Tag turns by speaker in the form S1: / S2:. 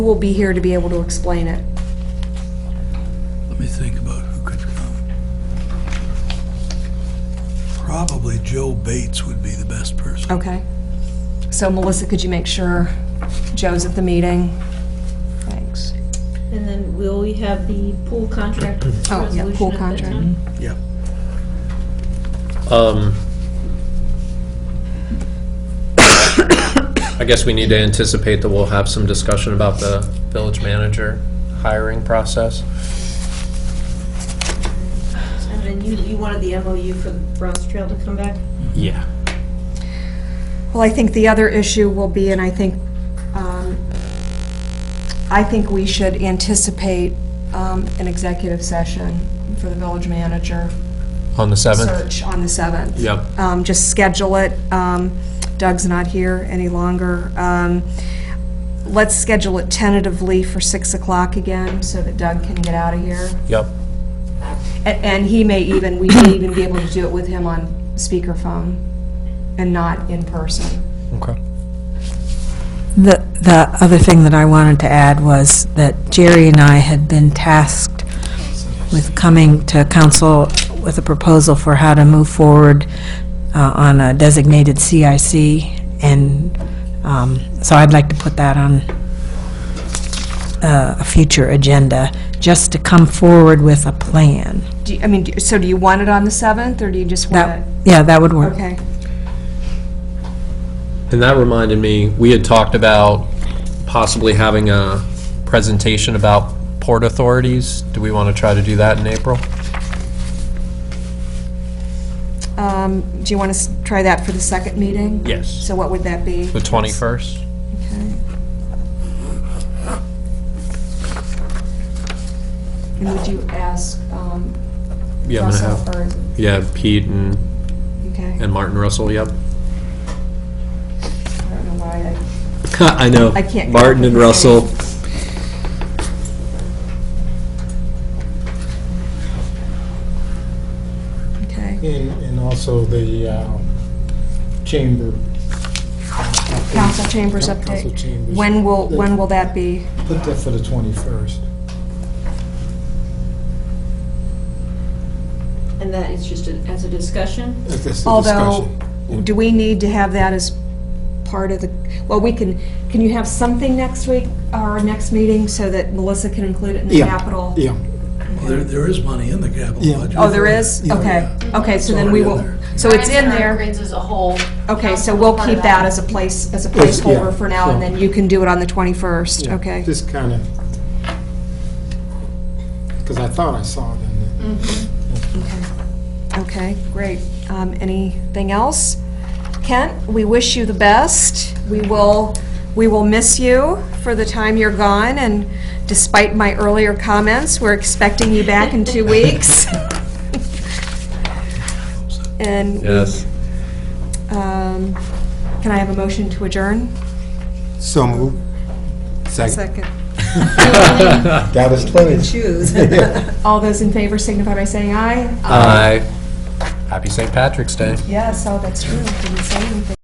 S1: who will be here to be able to explain it.
S2: Let me think about who could come. Probably Joe Bates would be the best person.
S1: Okay. So Melissa, could you make sure Joe's at the meeting? Thanks.
S3: And then will we have the pool contract
S1: Oh, yeah,
S3: resolution
S1: pool
S3: at that
S1: contract.
S3: time?
S2: Yeah.
S4: Um, I guess we need to anticipate that we'll have some discussion about the village manager hiring process.
S3: And then you, you wanted the MOU for the Bronze Trail to come back?
S4: Yeah.
S1: Well, I think the other issue will be, and I think, um, I think we should anticipate um, an executive session for the village manager
S4: On the 7th?
S1: search on the 7th.
S4: Yep.
S1: Um, Just schedule it. Um, Doug's not here any longer. Um, Let's schedule it tentatively for 6 o'clock again, so that Doug can get out of here.
S4: Yep.
S1: A- And he may even, we may even be able to do it with him on speakerphone and not in person.
S4: Okay.
S5: The, the other thing that I wanted to add was that Jerry and I had been tasked with coming to council with a proposal for how to move forward uh, on a designated CIC, and um, so I'd like to put that on uh, a future agenda, just to come forward with a plan.
S1: Do, you- I mean, do- so do you want it on the 7th, or do you just
S5: That,
S1: want
S5: yeah, that would
S1: it?
S5: work.
S1: Okay,
S4: And that reminded me, we had talked about possibly having a presentation about port authorities. Do we want to try to do that in April?
S1: Um, do you want to try that for the second meeting?
S4: Yes.
S1: So what would that be?
S4: The 21st?
S1: Okay. And would you ask, um,
S4: Yeah, I'm gonna
S1: Russell,
S4: have,
S1: or,
S4: yeah, Pete and,
S1: okay,
S4: and Martin Russell, yep.
S1: I don't know why, I-
S4: I know.
S1: I can't come up
S4: Martin
S1: with
S4: and
S1: the name.
S4: Russell.
S1: okay.
S6: And, and also the um, chamber.
S1: Council chambers
S6: Council
S1: update.
S6: chambers.
S1: When will, when will that be?
S6: Put that for the 21st.
S3: And that is just a- as a discussion?
S6: If it's the
S1: Although,
S6: discussion.
S1: do we need to have that as part of the, well, we can, can you have something next week, our next meeting, so that Melissa can include it in the
S6: Yeah,
S1: capital?
S6: Yeah,
S2: Well, there, there is money in the capital
S6: Yeah.
S2: budget.
S1: Oh, there is?
S6: Yeah.
S1: Okay, okay, so then we
S2: already in
S1: will,
S2: there.
S1: so it's in there.
S7: Grins is a whole.
S1: Okay, so we'll keep that as a place, as a
S6: It's- yeah,
S1: placeholder for now, and
S6: so-
S1: then you can do it on the 21st,
S6: yeah.
S1: okay?
S6: Just kind of, because I thought I saw it in there.
S1: Okay, great. Um, Anything else? Kent, we wish you the best. We will, we will miss you for the time you're gone, and despite my earlier comments, we're expecting you back in two weeks. And,
S4: Yes.
S1: um, can I have a motion to adjourn?
S6: So moved. Second.
S1: Second.
S6: Got his place.
S1: All those in favor signify by saying aye.
S4: Aye. Happy St. Patrick's Day.
S1: Yes, oh, that's true. Didn't say anything.